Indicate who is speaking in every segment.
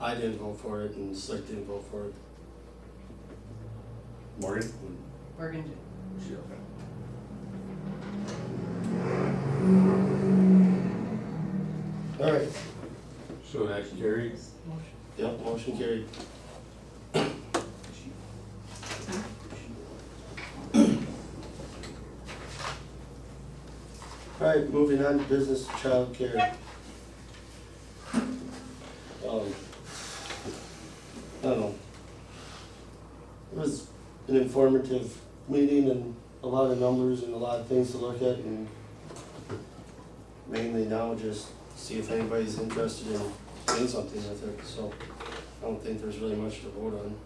Speaker 1: I didn't vote for it and Slick didn't vote for it.
Speaker 2: Morgan?
Speaker 3: Morgan did.
Speaker 2: She, okay.
Speaker 1: Alright,
Speaker 2: So that's carried.
Speaker 3: Motion.
Speaker 1: yep, motion carried. Alright, moving on to business childcare. Um, I don't know. It was an informative meeting and a lot of numbers and a lot of things to look at and mainly now just see if anybody's interested in doing something with it, so I don't think there's really much to vote on.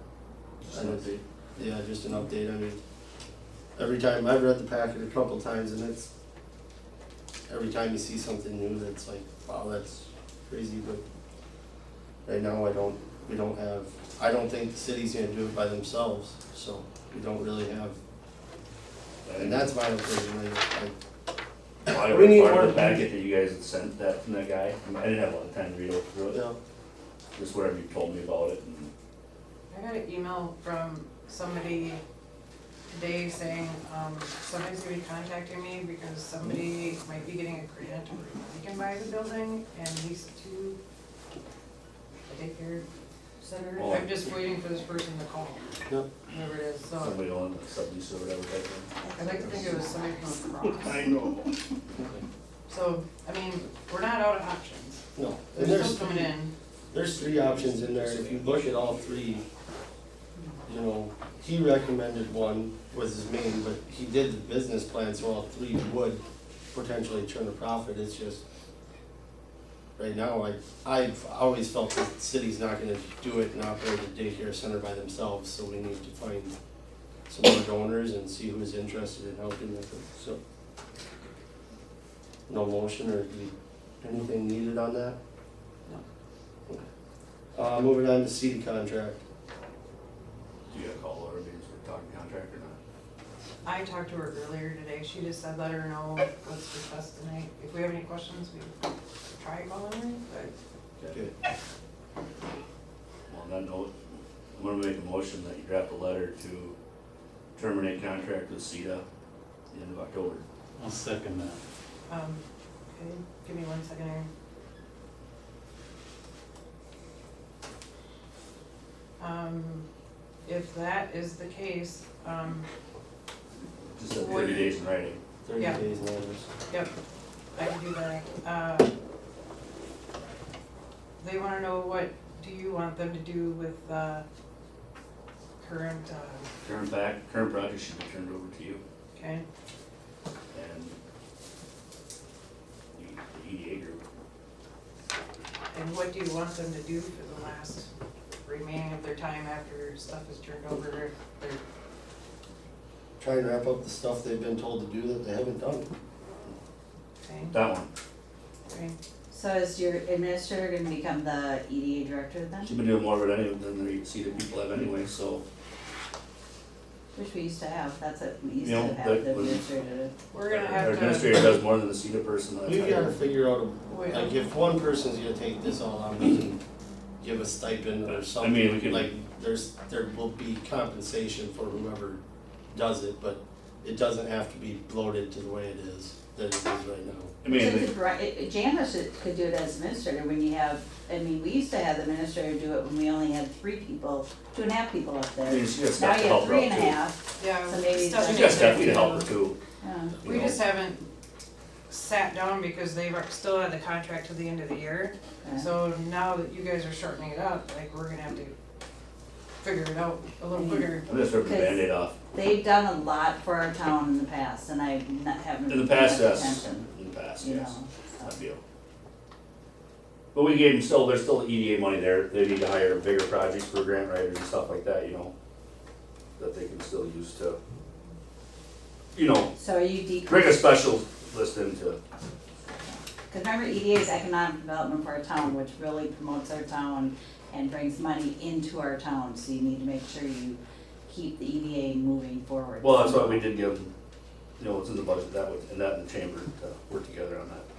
Speaker 2: Just an update.
Speaker 1: Yeah, just an update, I mean, every time, I've read the packet a couple times and it's, every time you see something new, that's like, wow, that's crazy, but right now, I don't, we don't have, I don't think the city's gonna do it by themselves, so we don't really have, and that's my opinion, like, I,
Speaker 4: Well, I
Speaker 1: We need
Speaker 4: read part of
Speaker 1: more-
Speaker 4: the packet that you guys had sent that from that guy, I mean, I didn't have a lot of time to read over through
Speaker 1: you
Speaker 4: it,
Speaker 1: know,
Speaker 4: just whatever you told me about it, and
Speaker 3: I got an email from somebody today saying, um, somebody's gonna be contacting me because somebody might be getting a grant or they can buy the building and lease it to a daycare center.
Speaker 4: Oh.
Speaker 3: I'm just waiting for this person to call,
Speaker 1: yeah,
Speaker 3: whoever it is, so
Speaker 4: somebody on the sublease or whatever type of.
Speaker 3: I'd like to think it was somebody from across.
Speaker 4: know.
Speaker 3: So, I mean, we're not out of options.
Speaker 1: no. And
Speaker 3: They're still
Speaker 1: there's,
Speaker 3: coming in.
Speaker 1: there's three options in there, and if you look at all three, you know, he recommended one was his main, but he did the business plan, so all three would potentially turn a profit, it's just right now, I, I've always felt that the city's not gonna do it and operate a daycare center by themselves, so we need to find some more donors and see who's interested in helping with it, so. No motion or do you- anything needed on that?
Speaker 3: No.
Speaker 1: Okay. Uh, moving on to CD contract.
Speaker 4: Do you gotta call her, because we're talking contract or not?
Speaker 3: I talked to her earlier today, she just said, let her know what's discussed tonight, if we have any questions, we try calling her, but
Speaker 1: Okay.
Speaker 4: Well, on that note, I'm gonna make a motion that you draft a letter to terminate contract with CETA the end of October.
Speaker 5: I'll second that.
Speaker 3: Um, okay, give me one second here. Um, if that is the case, um,
Speaker 4: Just have
Speaker 3: What-
Speaker 4: thirty days in writing.
Speaker 1: Thirty
Speaker 3: Yeah.
Speaker 1: days notice.
Speaker 3: yep, I can do that, uh. They wanna know what do you want them to do with, uh, current, uh,
Speaker 4: Current back, current project should be turned over to you,
Speaker 3: okay,
Speaker 4: and the- the EDA group.
Speaker 3: and what do you want them to do for the last remaining of their time after stuff is turned over, their
Speaker 1: Try and wrap up the stuff they've been told to do that they haven't done.
Speaker 3: thing,
Speaker 4: That one,
Speaker 3: right?
Speaker 6: So is your administrator gonna become the EDA director then,
Speaker 4: she's been doing more of it anyway than the CETA people have anyway, so
Speaker 6: which we used to have, that's what we used
Speaker 4: You
Speaker 6: to
Speaker 4: know,
Speaker 6: have,
Speaker 4: that
Speaker 6: the
Speaker 4: was-
Speaker 6: administrator.
Speaker 3: We're gonna
Speaker 4: Our
Speaker 3: have to,
Speaker 4: administrator does more than the CETA person. that's
Speaker 1: We
Speaker 4: hired.
Speaker 1: gotta figure out,
Speaker 3: Wait.
Speaker 1: like, if one person's gonna take this all on, we can give a stipend
Speaker 4: I
Speaker 1: or
Speaker 4: mean, we
Speaker 1: something,
Speaker 4: can-
Speaker 1: like, there's, there will be compensation for whoever does it, but it doesn't have to be bloated to the way it is, that it is right now.
Speaker 4: I mean,
Speaker 6: So
Speaker 4: they-
Speaker 6: could Bri- it- it- Janice should- could do it as administrator when you have, I mean, we used to have the administrator do it when we only had three people, two and a half people up
Speaker 4: I mean,
Speaker 6: there.
Speaker 4: she got
Speaker 6: Now
Speaker 4: staff to
Speaker 6: you have
Speaker 4: help her
Speaker 6: three and a
Speaker 4: out
Speaker 6: half, Oh,
Speaker 3: yeah.
Speaker 6: So maybe
Speaker 4: too.
Speaker 3: stuff
Speaker 4: She's
Speaker 6: She's
Speaker 4: got
Speaker 3: is
Speaker 4: staff to
Speaker 3: gonna
Speaker 4: help her
Speaker 3: come.
Speaker 4: too,
Speaker 6: yeah.
Speaker 4: you
Speaker 3: We
Speaker 4: know.
Speaker 3: just haven't sat down because they've are- still had the contract to the end of the year.
Speaker 6: yeah.
Speaker 3: So now that you guys are shortening it up, like, we're gonna have to figure it out a little quicker.
Speaker 4: I'm just ripping the
Speaker 6: Because-
Speaker 4: Band-Aid off.
Speaker 6: They've done a lot for our town in the past, and I not haven't
Speaker 4: In the
Speaker 6: paid
Speaker 4: past,
Speaker 6: much
Speaker 4: yes,
Speaker 6: attention,
Speaker 4: in the past,
Speaker 6: you
Speaker 4: yes,
Speaker 6: know, so.
Speaker 4: that deal. But we gave them still, there's still EDA money there, they need to hire bigger projects for grant writers and stuff like that, you know? That they can still use to, you know,
Speaker 6: So are you decreasing?
Speaker 4: bring a special list into,
Speaker 6: Because remember, EDA is economic development for our town, which really promotes our town and brings money into our town, so you need to make sure you keep the EDA moving forward.
Speaker 4: well, that's why we did give them, you know, it's in the budget, that would, and that in the chamber to work together on that.